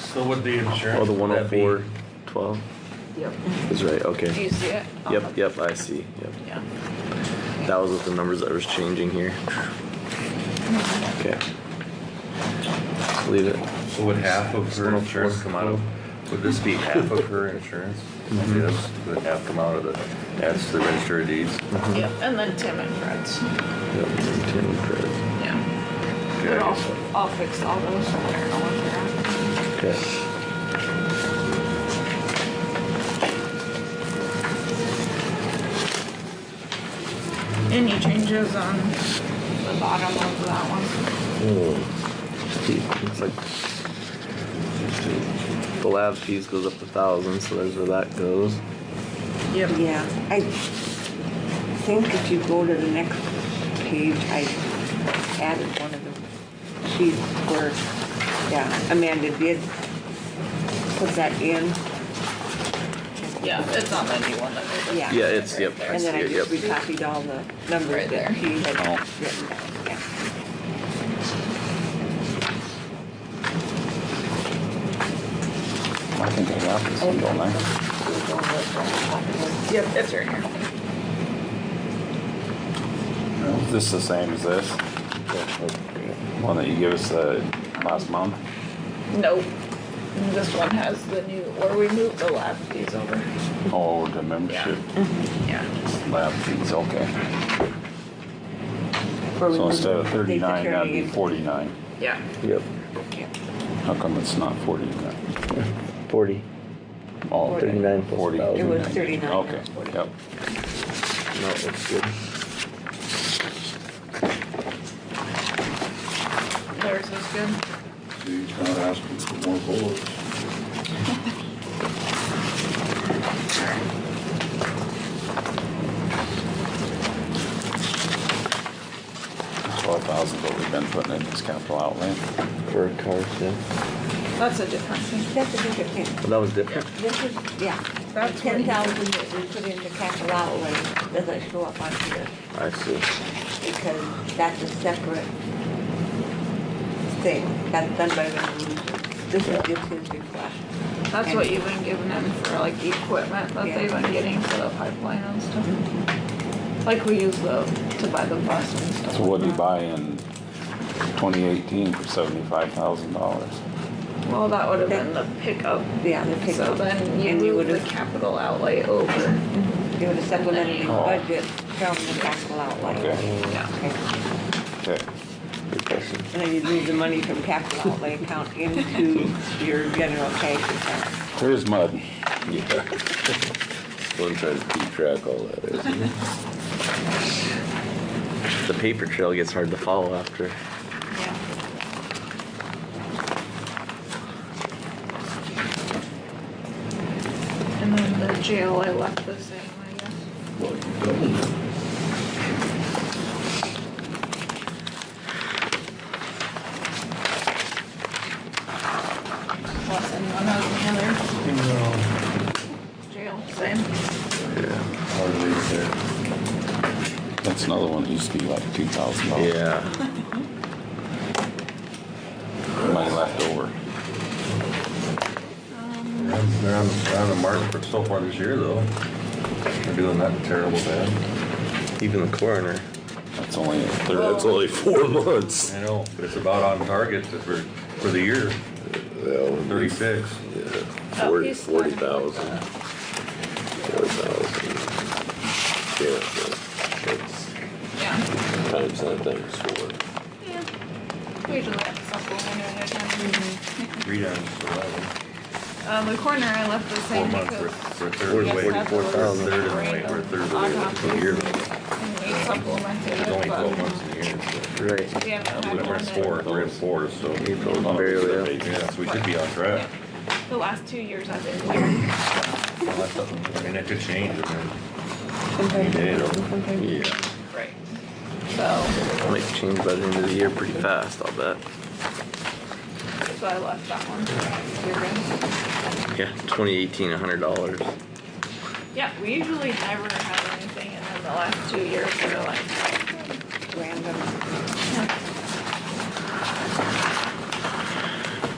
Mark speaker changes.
Speaker 1: So would the insurance?
Speaker 2: Oh, the one oh
Speaker 1: that be-
Speaker 2: four twelve
Speaker 3: Yep.
Speaker 2: is right,
Speaker 4: Do you
Speaker 2: okay.
Speaker 4: see it?
Speaker 2: Yep, yep, I see, yep.
Speaker 4: Yeah.
Speaker 2: That was with the numbers that was changing here. Okay. Leave it.
Speaker 5: So would half of her
Speaker 2: 104.
Speaker 5: insurance come out of, would this be half of her insurance?
Speaker 2: Mm-hmm.
Speaker 5: Yes, would half come out of the, that's the register of deeds?
Speaker 4: Yep, and then Tim and Fred's,
Speaker 2: Yep, ten credits.
Speaker 4: yeah.
Speaker 5: Okay,
Speaker 3: But
Speaker 5: I
Speaker 3: I'll,
Speaker 5: guess-
Speaker 3: I'll fix all those. I don't know what they're at.
Speaker 2: Okay.
Speaker 4: Any changes on the bottom of that one?
Speaker 2: Hmm. It's like the lab fees goes up a thousand, so there's where that goes.
Speaker 4: Yep.
Speaker 6: Yeah, I think if you go to the next page, I added one of the sheets where, yeah, Amanda did put that in.
Speaker 4: Yeah, it's on the new one that they did.
Speaker 6: Yeah.
Speaker 2: Yeah, it's yep. I
Speaker 6: And
Speaker 2: see
Speaker 6: then I
Speaker 2: it,
Speaker 6: just
Speaker 2: yep.
Speaker 6: recopied all the
Speaker 4: Right
Speaker 6: numbers
Speaker 4: there.
Speaker 6: that she had
Speaker 5: Oh.
Speaker 6: written down, yeah.
Speaker 7: I think I got this one, don't I?
Speaker 4: Yep, it's right here.
Speaker 7: Is this the same as this? One that you gave us uh, last month?
Speaker 4: Nope. This one has the new, where we moved the lab fees over.
Speaker 7: Oh, the membership
Speaker 4: Yeah.
Speaker 7: lab fees, okay.
Speaker 6: Where we
Speaker 7: So instead of
Speaker 6: take the
Speaker 7: thirty-nine, that'd be
Speaker 6: turning.
Speaker 7: forty-nine.
Speaker 4: Yeah.
Speaker 2: Yep.
Speaker 6: Yeah.
Speaker 7: How come it's not forty-nine?
Speaker 2: Forty.
Speaker 7: Oh, okay.
Speaker 2: 39 plus
Speaker 7: Forty.
Speaker 2: 1,000.
Speaker 6: It was thirty-nine.
Speaker 7: Okay, yep.
Speaker 2: No, it looks good.
Speaker 4: Theirs is good.
Speaker 8: He's not asking for more bullets.
Speaker 7: Twelve thousand, what we've been putting in this capital outlay.
Speaker 2: For a car, yeah.
Speaker 4: That's a different thing.
Speaker 6: That's a different thing.
Speaker 2: Well, that was different.
Speaker 6: This is, yeah,
Speaker 4: That's what
Speaker 6: ten
Speaker 4: he-
Speaker 6: thousand that we put in the capital outlay doesn't show up on here.
Speaker 2: I see.
Speaker 6: because that's a separate thing. That's done by resolution. This is just his request.
Speaker 4: That's what you've been giving them for like the equipment that they've been getting for the pipeline and stuff. Like we use the, to buy the bus and stuff.
Speaker 7: So what did
Speaker 4: like
Speaker 7: you buy in twenty eighteen for seventy-five thousand dollars?
Speaker 4: that. Well, that would have been the pickup.
Speaker 6: Yeah, the
Speaker 4: So
Speaker 6: pickup.
Speaker 4: then you
Speaker 6: And you
Speaker 4: move the
Speaker 6: would've,
Speaker 4: capital outlay over.
Speaker 6: you would've supplemented the
Speaker 7: Oh.
Speaker 6: budget from the capital outlay.
Speaker 7: Okay,
Speaker 4: Yeah.
Speaker 6: Okay.
Speaker 7: okay.
Speaker 2: Good question.
Speaker 6: And then you'd move the money from capital outlay account into your general cash account.
Speaker 7: There's mud.
Speaker 2: Yeah. One tries to keep track all that, isn't it? The paper trail gets hard to follow after.
Speaker 4: Yeah. And then the jail, I left the same, I guess.
Speaker 8: Well, you don't.
Speaker 4: Plus anyone has any other jail, same.
Speaker 8: I'll leave it there.
Speaker 7: That's another one that used to be like two thousand dollars.
Speaker 2: Yeah.
Speaker 7: Money left over.
Speaker 5: They're on- They're on, they're on the market for so far this year though. They're doing that terrible bad.
Speaker 2: Even the coroner.
Speaker 7: That's only a third.
Speaker 2: That's only four months.
Speaker 5: I know, but it's about on target for, for the year, thirty-six.
Speaker 4: Oh,
Speaker 2: Forty,
Speaker 4: he's
Speaker 2: forty
Speaker 4: talking
Speaker 2: thousand.
Speaker 4: about
Speaker 2: Forty thousand. Yeah, so it's
Speaker 4: Yeah.
Speaker 2: times that times four.
Speaker 4: We usually have something at a time.
Speaker 5: Three times eleven.
Speaker 4: Uh, the corner I left the
Speaker 5: Four
Speaker 4: same
Speaker 5: months,
Speaker 4: because.
Speaker 5: we're, we're
Speaker 4: we just
Speaker 5: third away,
Speaker 4: had
Speaker 5: we're
Speaker 4: those
Speaker 5: third and away, we're
Speaker 4: random
Speaker 5: third away from the year though.
Speaker 4: And we supplemented it,
Speaker 5: There's only
Speaker 4: but
Speaker 5: twelve months in the year, so.
Speaker 2: Right.
Speaker 4: we haven't had
Speaker 5: We're
Speaker 4: one
Speaker 5: in
Speaker 4: that-
Speaker 5: four, we're in four, so.
Speaker 2: April's barely up.
Speaker 5: Yeah, so we should be on track.
Speaker 4: The last two years I've been here.
Speaker 5: Well, that's something- I mean, that could change, I mean.
Speaker 6: Sometimes
Speaker 5: Yeah, it'll-
Speaker 6: sometimes
Speaker 2: Yeah.
Speaker 4: Right. So,
Speaker 2: Might change by the end of the year pretty fast, I'll bet.
Speaker 4: so I left that one.
Speaker 2: Yeah, twenty eighteen, a hundred dollars.
Speaker 4: Yeah, we usually never have anything and then the last two years we're like,
Speaker 6: random.
Speaker 4: "Hmm,